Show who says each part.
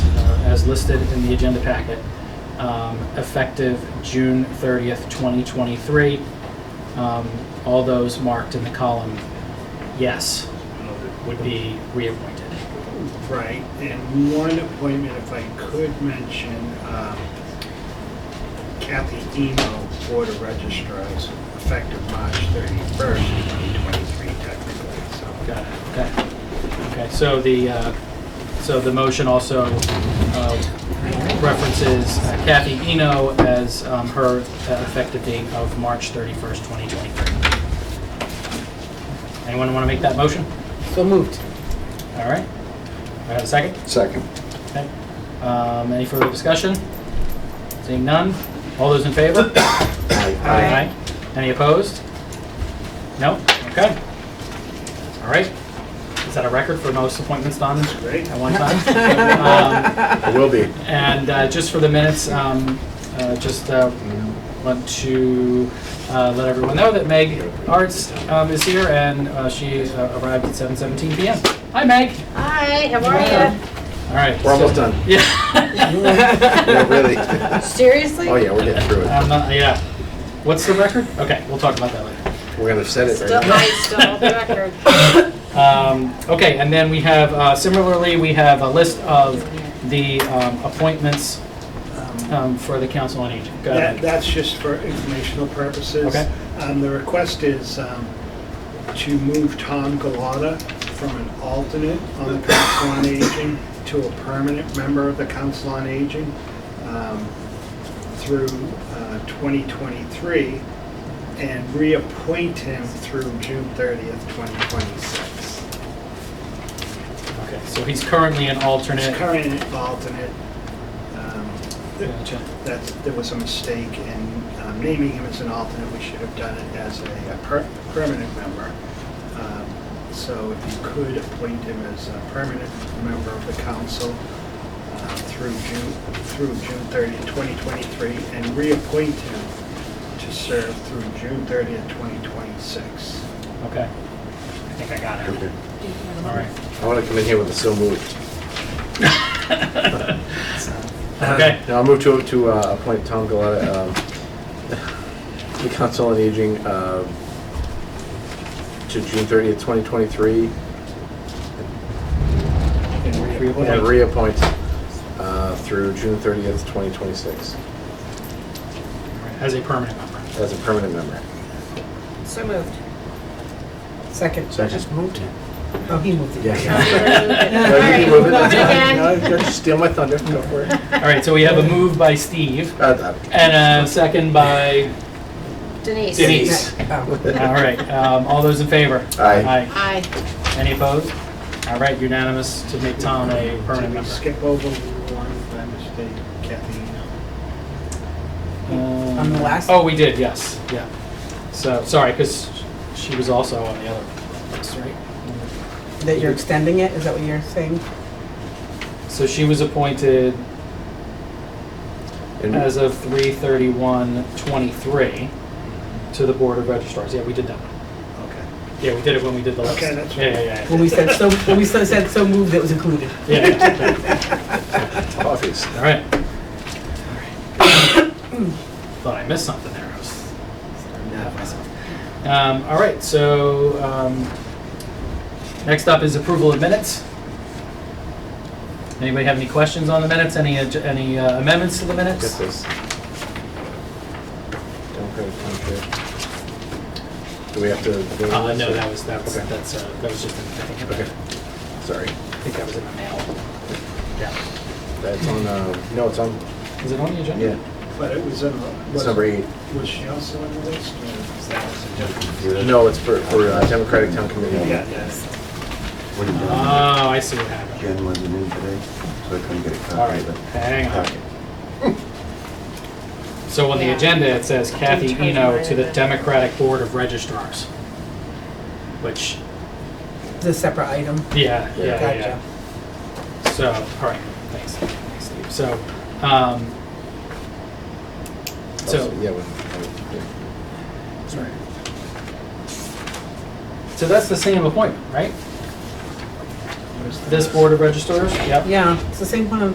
Speaker 1: uh, as listed in the agenda packet, um, effective June 30th, 2023. Um, All those marked in the column yes would be reappointed.
Speaker 2: Right, and one appointment, if I could mention, um, Kathy Emo, Board of Registrars, effective March 31st, 2023 technically, so.
Speaker 1: Got it, okay. Okay, so the, uh, so the motion also uh, references Kathy Eno as um, her uh, effective date of March 31st, 2023. Anyone want to make that motion?
Speaker 3: So moved.
Speaker 1: All right. Do I have a second?
Speaker 4: Second.
Speaker 1: Okay. Um, Any further discussion? Seeing none? All those in favor?
Speaker 3: Aye.
Speaker 1: Any opposed? No? Okay. All right. Is that a record for most appointments done
Speaker 2: Great.
Speaker 1: at one time? Um,
Speaker 4: It will be.
Speaker 1: And uh, just for the minutes, um, uh, just uh, want to uh, let everyone know that Meg Arts um, is here, and uh, she uh, arrived at 7:17 PM. Hi, Meg.
Speaker 5: Hi, how are you?
Speaker 1: All right. Um,
Speaker 4: We're almost
Speaker 1: so-
Speaker 4: done.
Speaker 1: Yeah.
Speaker 4: Yeah, really.
Speaker 5: Seriously?
Speaker 4: Oh, yeah, we're getting through it.
Speaker 1: I'm not- uh, yeah. What's the record? Okay, we'll talk about that later.
Speaker 4: We're gonna set it
Speaker 5: Still,
Speaker 4: right now.
Speaker 5: I still have the record.
Speaker 1: Um, okay, and then we have, uh, similarly, we have a list of the um, appointments um, for the Council on Aging. Go
Speaker 2: That,
Speaker 1: ahead.
Speaker 2: that's just for informational purposes.
Speaker 1: Okay.
Speaker 2: Um, the request is, um, to move Tom Galata from an alternate on the Council on Aging to a permanent member of the Council on Aging, um, through, uh, 2023, and reappoint him through June 30th, 2026.
Speaker 1: Okay, so he's currently an alternate.
Speaker 2: His current alternate, um,
Speaker 1: Gotcha.
Speaker 2: that there was a mistake in um, naming him as an alternate. We should have done it as a a per- permanent member. Um, So if you could appoint him as a permanent member of the council uh, through June, through June 30th, 2023, and reappoint him to serve through June 30th, 2026.
Speaker 1: Okay. I think I got it. All right.
Speaker 4: I wanna come in here with a so moved.
Speaker 1: Okay,
Speaker 4: Now I'll move to, to uh, appoint Tom Galata, um, the Council on Aging, um, to June thirtieth, twenty twenty-three,
Speaker 2: And reappoint-
Speaker 4: and reappoint, uh, through June thirtieth, twenty twenty-six,
Speaker 1: as a permanent member.
Speaker 4: as a permanent member.
Speaker 5: So moved.
Speaker 3: Second.
Speaker 4: Second.
Speaker 3: moved it. Oh, he moved it.
Speaker 4: Yeah,
Speaker 5: No,
Speaker 4: yeah.
Speaker 5: you moved it.
Speaker 4: No, you can move it, that's fine. No,
Speaker 5: All right,
Speaker 4: you
Speaker 5: again.
Speaker 4: can Steal my thunder, go for it.
Speaker 1: All right, so we have a move by Steve
Speaker 4: Uh,
Speaker 1: and a second by
Speaker 5: Denise.
Speaker 1: Denise.
Speaker 3: Oh.
Speaker 1: All right, um, all those in favor?
Speaker 4: Aye.
Speaker 1: Aye.
Speaker 5: Aye.
Speaker 1: Any opposed? All right, unanimous to make Tom a permanent
Speaker 2: Did we
Speaker 1: member.
Speaker 2: skip over one by mistake, Kathy?
Speaker 1: Um,
Speaker 3: On the last-
Speaker 1: Oh, we did, yes, yeah. So, sorry, because she was also on the other list, right?
Speaker 3: That you're extending it, is that what you're saying?
Speaker 1: So she was appointed
Speaker 4: and-
Speaker 1: as of 3/31/23 to the Board of registrars. Yeah, we did that.
Speaker 2: Okay.
Speaker 1: Yeah, we did it when we did the list.
Speaker 2: Okay, that's
Speaker 1: Yeah,
Speaker 2: right.
Speaker 1: yeah, yeah, yeah.
Speaker 3: When we said so, when we so- said so moved, it was included.
Speaker 1: Yeah, yeah, yeah.
Speaker 4: Obvious.
Speaker 1: All right. Thought I missed something there. I was starting to doubt myself. Um, all right, so um, next up is approval of minutes. Anybody have any questions on the minutes? Any adj- any uh, amendments to the
Speaker 4: Get
Speaker 1: minutes?
Speaker 4: this. Don't go to contract. Do we have to? vote on
Speaker 1: Uh,
Speaker 4: this,
Speaker 1: no,
Speaker 4: or-
Speaker 1: that was that was
Speaker 4: Okay.
Speaker 1: that's uh, that was just in, I think
Speaker 4: Okay, sorry.
Speaker 1: I think that was in the mail. Yeah.
Speaker 4: That's on, uh, no, it's on,
Speaker 1: Is it on the agenda?
Speaker 4: yeah,
Speaker 2: But it was in the.
Speaker 4: it's number eight.
Speaker 2: Was she also on the list? or was that also different?
Speaker 4: No, it's for, for uh, Democratic Town Committee.
Speaker 2: Yeah, yes.
Speaker 6: What are you doing?
Speaker 1: Oh, I see what happened.
Speaker 6: Jen wasn't in today, so I couldn't get a
Speaker 1: All
Speaker 6: copy
Speaker 1: right,
Speaker 6: of it.
Speaker 1: hang on.
Speaker 6: Okay.
Speaker 1: So on the
Speaker 5: Yeah.
Speaker 1: agenda, it says Kathy
Speaker 5: Didn't tell
Speaker 1: Eno
Speaker 5: you
Speaker 1: to the
Speaker 5: either.
Speaker 1: Democratic Board of Registrars. Which,
Speaker 3: The separate item.
Speaker 1: yeah,
Speaker 4: Yeah.
Speaker 1: yeah,
Speaker 3: Gotcha.
Speaker 1: yeah. So, all right, thanks, thanks, Steve. So, um, so,
Speaker 4: Yeah, when- yeah.
Speaker 1: sorry. So that's the same appointment, right?
Speaker 2: What is
Speaker 1: This
Speaker 2: that?
Speaker 1: Board of Registrars? Yep.
Speaker 3: Yeah, it's the same one